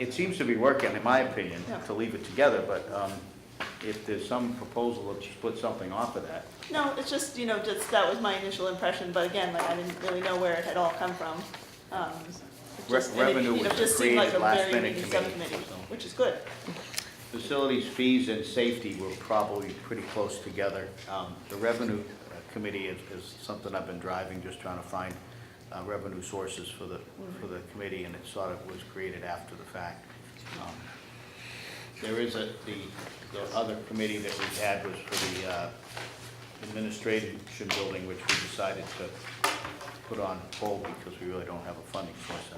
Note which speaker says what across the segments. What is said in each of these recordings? Speaker 1: It seems to be working, in my opinion, to leave it together, but um, if there's some proposal to split something off of that,
Speaker 2: No, it's just, you know, just, that was my initial impression, but again, like, I didn't really know where it had all come from. Um, it
Speaker 1: Re-
Speaker 2: just- and it,
Speaker 1: revenue
Speaker 2: you know,
Speaker 1: was
Speaker 2: just seemed like a
Speaker 1: created last
Speaker 2: very
Speaker 1: minute
Speaker 2: meaty
Speaker 1: committee,
Speaker 2: subcommittee,
Speaker 1: so.
Speaker 2: Which is good.
Speaker 1: facilities, fees, and safety were probably pretty close together. Um, The revenue committee is is something I've been driving, just trying to find uh, revenue sources for the, for the committee, and it sort of was created after the fact. Um, There is a, the, the other committee that we had was for the uh, administration building, which we decided to put on hold because we really don't have a funding source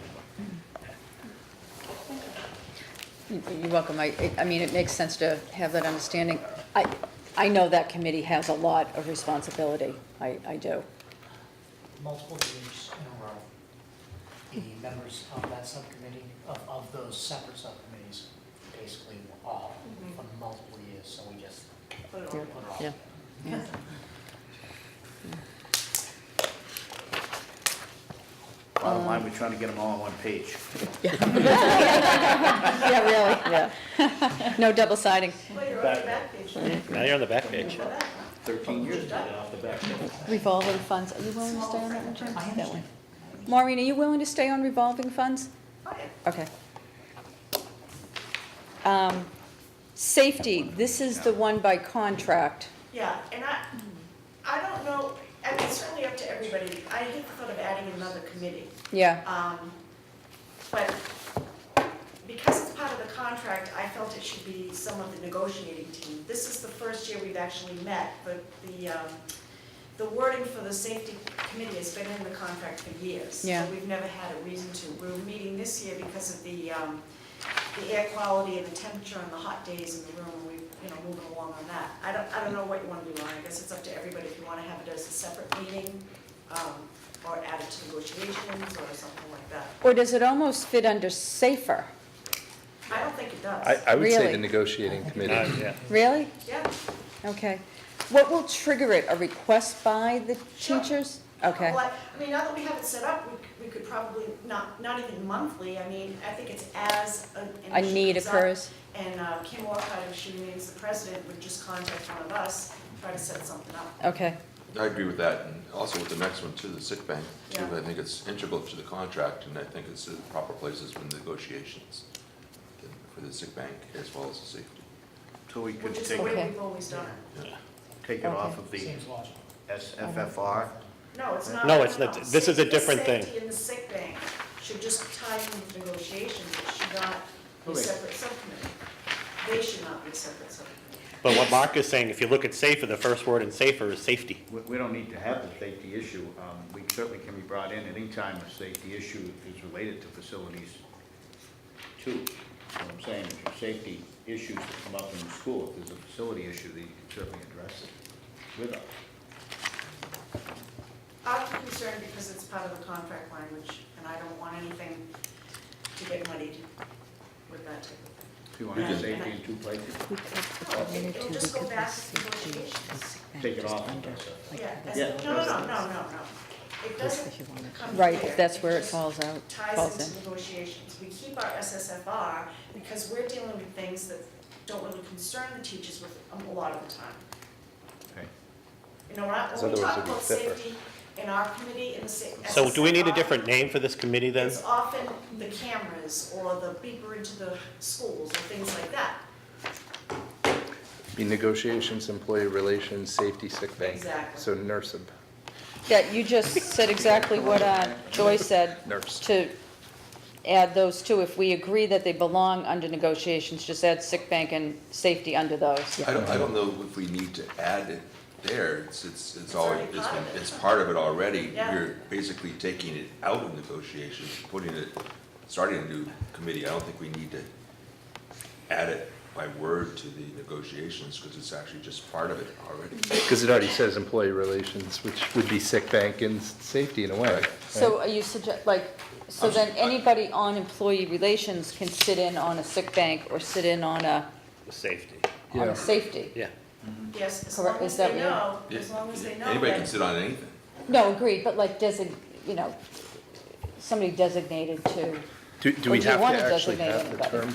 Speaker 1: anymore.
Speaker 3: You're welcome. I, I- I mean, it makes sense to have that understanding. I, I know that committee has a lot of responsibility. I, I do.
Speaker 4: multiple years in a row, the members of that subcommittee, of, of those separate subcommittees, basically were all for multiple years, so we just put it all.
Speaker 3: Mm-hmm. Yeah.
Speaker 1: Bottom line, we're trying to get them all on one page.
Speaker 3: Yeah, really, yeah. No double siding.
Speaker 5: Well, you're on the back page.
Speaker 6: Now you're on the back page.
Speaker 1: Thirteen years to get off the back.
Speaker 3: Revolving funds, are you willing to stay on that one, Jim?
Speaker 4: I
Speaker 3: That
Speaker 4: understand.
Speaker 3: one. Maureen, are you willing to stay on revolving funds?
Speaker 5: Oh, yeah.
Speaker 3: Okay. Um, Safety, this is the one by contract.
Speaker 5: Yeah, and I, I don't know, I mean, it's certainly up to everybody. I hate the thought of adding another committee.
Speaker 3: Yeah,
Speaker 5: Um, But because it's part of the contract, I felt it should be some of the negotiating team. This is the first year we've actually met, but the, um, the wording for the safety committee has been in the contract for years.
Speaker 3: Yeah.
Speaker 5: So We've never had a reason to. We're meeting this year because of the, um, the air quality and the temperature and the hot days in the room, we, you know, moving along on that. I don't, I don't know what you wanna do, Lauren, I guess it's up to everybody if you wanna have it as a separate meeting, um, or add it to negotiations or something like that.
Speaker 3: or does it almost fit under safer?
Speaker 5: I don't think it does.
Speaker 7: I, I would say
Speaker 3: Really?
Speaker 7: the negotiating
Speaker 6: Uh,
Speaker 7: committee.
Speaker 6: yeah.
Speaker 3: Really?
Speaker 5: Yeah,
Speaker 3: Okay. What will trigger it? A request by the
Speaker 5: Sure.
Speaker 3: teachers? Okay.
Speaker 5: well, I I mean, now that we have it set up, we, c- we could probably, not, not even monthly, I mean, I think it's as an an
Speaker 3: A
Speaker 5: issue
Speaker 3: need
Speaker 5: comes up.
Speaker 3: occurs.
Speaker 5: And uh, Kim Walcott, if she remains the president, would just contact one of us, try to set something up.
Speaker 3: Okay,
Speaker 8: I agree with that, and also with the next one too, the sick bank, too.
Speaker 5: Yeah.
Speaker 8: I think it's integral to the contract, and I think it's the proper places for negotiations for the sick bank as well as the safety.
Speaker 1: So we could
Speaker 5: Which is
Speaker 1: take,
Speaker 5: the way
Speaker 3: Okay.
Speaker 5: we've always done it.
Speaker 1: take it off of the
Speaker 4: Seems logical.
Speaker 1: SFFR.
Speaker 5: No, it's not.
Speaker 6: No, it's not. This is a
Speaker 5: Safety-
Speaker 6: different thing.
Speaker 5: Safety in the sick bank should just tie in with negotiations, it should not be
Speaker 1: Okay.
Speaker 5: separate subcommittee. They should not be separate subcommittee.
Speaker 6: But what Mark is saying, if you look at safer, the first word in safer is safety.
Speaker 1: We, we don't need to have the safety issue. Um, we certainly can be brought in at any time a safety issue is related to facilities too. What I'm saying is your safety issues that come up in the school, if there's a facility issue, then you can certainly address it with us.
Speaker 5: I'm concerned because it's part of the contract language, and I don't want anything to get muddied with that type of
Speaker 1: If you want to have safety in two places,
Speaker 3: Oh,
Speaker 5: thing. No, it- It'll just go back to negotiations.
Speaker 1: take it off of SFFR.
Speaker 5: Yeah, that's-
Speaker 1: Yeah,
Speaker 5: no, no, no,
Speaker 1: that's-
Speaker 5: no, no, no. It doesn't come
Speaker 3: right,
Speaker 5: here.
Speaker 3: if that's where it
Speaker 5: just-
Speaker 3: falls out,
Speaker 5: ties
Speaker 3: falls
Speaker 5: into
Speaker 3: in.
Speaker 5: negotiations. We keep our SSFR because we're dealing with things that don't really concern the teachers with um, a lot of the time.
Speaker 1: Okay.
Speaker 5: You know, when I-
Speaker 7: So
Speaker 5: when we
Speaker 7: otherwise
Speaker 5: talk
Speaker 7: it'd be
Speaker 5: about
Speaker 7: stiffer.
Speaker 5: safety in our committee, in the sa- SSFR.
Speaker 6: So do we need a different name for this committee then?
Speaker 5: It's often the cameras or the beeper into the schools or things like that.
Speaker 7: Be negotiations, employee relations, safety, sick bank.
Speaker 5: Exactly.
Speaker 7: So NERSIB,
Speaker 3: Yeah, you just said exactly what uh, Joy said,
Speaker 7: NERS.
Speaker 3: to add those two. If we agree that they belong under negotiations, just add sick bank and safety under those.
Speaker 8: I don't, I don't know if we need to add it there, it's, it's, it's already,
Speaker 5: already
Speaker 8: it's
Speaker 5: part
Speaker 8: been,
Speaker 5: of it.
Speaker 8: it's part of it already.
Speaker 5: Yeah.
Speaker 8: You're basically taking it out of negotiations, putting it, starting a new committee, I don't think we need to add it by word to the negotiations, because it's actually just part of it already.
Speaker 7: Because it already says employee relations, which would be sick bank and s- safety in a way.
Speaker 3: So are you suggest, like, so
Speaker 8: I'm s-
Speaker 3: then
Speaker 8: I-
Speaker 3: anybody on employee relations can sit in on a sick bank or sit in on a,
Speaker 6: Safety,
Speaker 3: on
Speaker 7: Yeah.
Speaker 3: a safety?
Speaker 6: yeah.
Speaker 5: Yes, as
Speaker 3: Correct.
Speaker 5: long
Speaker 3: Is
Speaker 5: as
Speaker 3: that
Speaker 5: they
Speaker 3: what you-
Speaker 5: know, as long as they know.
Speaker 8: Anybody
Speaker 5: that-
Speaker 8: can sit on anything.
Speaker 3: No, agreed, but like design, you know, somebody designated to
Speaker 7: Do, do
Speaker 3: Or
Speaker 7: we
Speaker 3: do you
Speaker 7: have
Speaker 3: wanna
Speaker 7: to actually
Speaker 3: designate
Speaker 7: have the
Speaker 3: anybody?
Speaker 7: term